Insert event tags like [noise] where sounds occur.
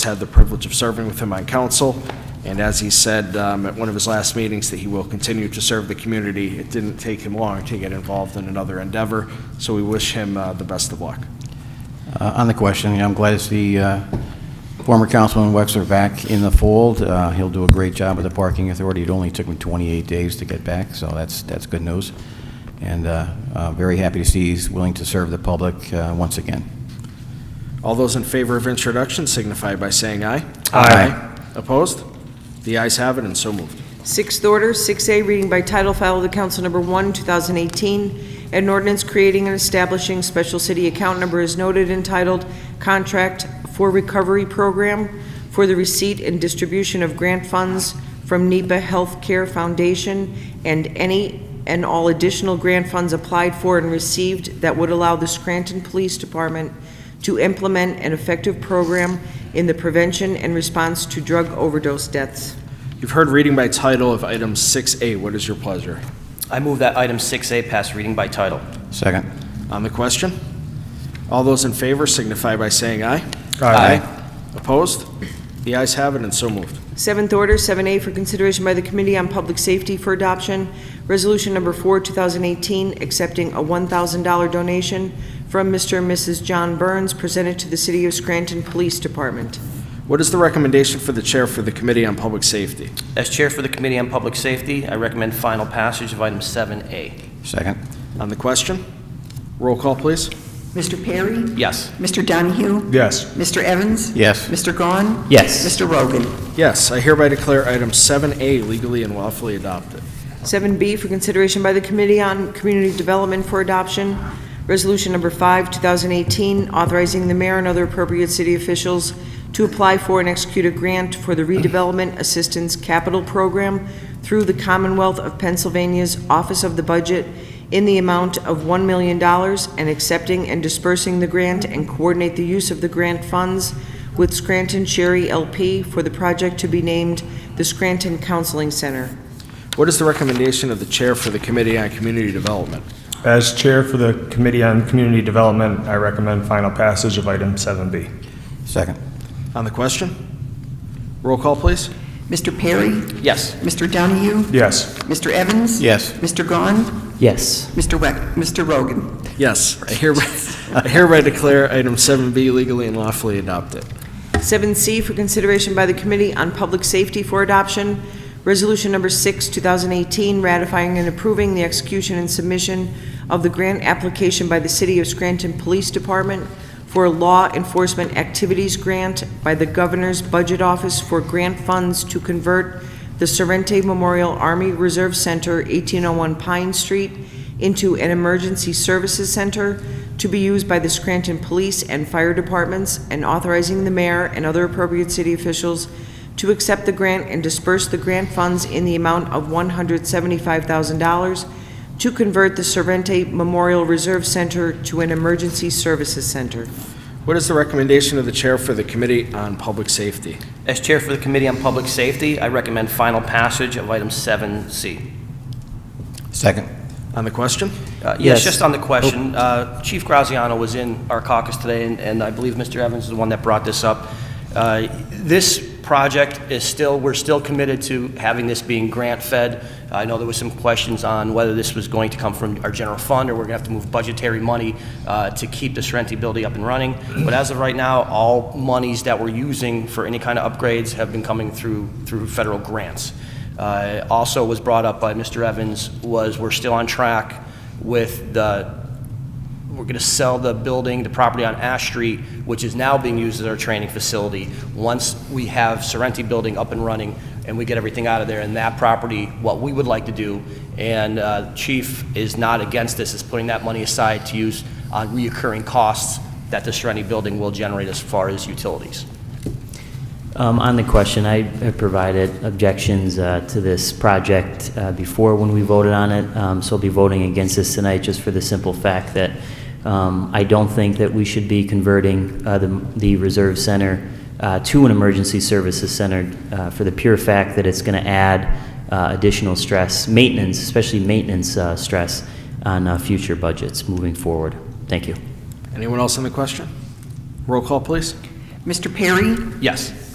had the privilege of serving with him on council, and as he said um, at one of his last meetings, that he will continue to serve the community. It didn't take him long to get involved in another endeavor, so we wish him uh, the best of luck. Uh, On the question, yeah, I'm glad to see uh, former Councilman Wexler back in the fold. Uh, He'll do a great job with the Parking Authority. It only took him 28 days to get back, so that's, that's good news. And uh, uh, very happy to see he's willing to serve the public uh, once again. All those in favor of introduction signify by saying aye. Aye. Opposed? The ayes have it, and so moved. Sixth order, 6A, reading by title, file of the council number 1, 2018, an ordinance creating and establishing special city account number is noted entitled Contract for Recovery Program for the receipt and distribution of grant funds from E NEPA Healthcare Foundation and any and all additional grant funds applied for and received that would allow the Scranton Police Department to implement an effective program in the prevention and response to drug overdose deaths. You've heard reading by title of item 6A. What is your pleasure? I move that item 6A pass reading by title. Second. On the question? All those in favor signify by saying aye. Aye. Opposed? The ayes have it, and so moved. Seventh order, 7A, for consideration by the Committee on Public Safety for Adoption, Resolution Number 4, 2018, accepting a $1,000 donation from Mr. and Mrs. John Burns, presented to the City of Scranton Police Department. What is the recommendation for the chair for the Committee on Public Safety? As Chair for the Committee on Public Safety, I recommend final passage of item 7A. Second. On the question? Roll call, please. Mr. Perry? Yes. Mr. Donahue? Yes. Mr. Evans? Yes. Mr. Gahn? Yes. Mr. Rogan? Yes, I hereby declare item 7A legally and lawfully adopted. 7B, for consideration by the Committee on Community Development for Adoption, Resolution Number 5, 2018, authorizing the mayor and other appropriate city officials to apply for and execute a grant for the Redevelopment Assistance Capital Program through the Commonwealth of Pennsylvania's Office of the Budget in the amount of $1 million and accepting and dispersing the grant and coordinate the use of the grant funds with Scranton Cherry LP for the project to be named the Scranton Counseling Center. What is the recommendation of the chair for the Committee on Community Development? As Chair for the Committee on Community Development, I recommend final passage of item 7B. Second. On the question? Roll call, please. Mr. Perry? Yes. Mr. Donahue? Yes. Mr. Evans? Yes. Mr. Gahn? Yes. Mr. Weck? Mr. Rogan? Yes, I hereby, [laughs] I hereby declare item 7B legally and lawfully adopted. 7C for consideration by the Committee on Public Safety for Adoption, Resolution Number 6, 2018, ratifying and approving the execution and submission of the grant application by the City of Scranton Police Department for a Law Enforcement Activities Grant by the Governor's Budget Office for grant funds to convert the Sorrente Memorial Army Reserve Center, 1801 Pine Street, into an emergency services center to be used by the Scranton Police and Fire Departments, and authorizing the mayor and other appropriate city officials to accept the grant and disperse the grant funds in the amount of $175,000 to convert the Sorrente Memorial Reserve Center to an emergency services center. What is the recommendation of the chair for the Committee on Public Safety? As Chair for the Committee on Public Safety, I recommend final passage of item 7C. Second. On the question? Uh, Yes, just on the question, uh, Chief Graziano was in our caucus today, and- and I believe Mr. Evans is the one that brought this up. Uh, This project is still, we're still committed to having this being grant-fed. I know there was some questions on whether this was going to come from our general fund, or we're going to have to move budgetary money uh, to keep the Sorrento building up and running. But as of right now, all monies that we're using for any kind of upgrades have been coming through, through federal grants. Uh, Also was brought up by Mr. Evans, was we're still on track with the, we're going to sell the building, the property on Ash Street, which is now being used as our training facility. Once we have Sorrenti Building up and running and we get everything out of there and that property, what we would like to do, and uh, Chief is not against this, is putting that money aside to use on reoccurring costs that the Sorrenti Building will generate as far as utilities. Um, On the question, I have provided objections uh, to this project uh, before when we voted on it, um, so I'll be voting against this tonight just for the simple fact that um, I don't think that we should be converting uh, the the Reserve Center uh, to an emergency services center uh, for the pure fact that it's going to add uh, additional stress, maintenance, especially maintenance uh, stress on uh, future budgets moving forward. Thank you. Anyone else on the question? Roll call, please. Mr. Perry? Yes.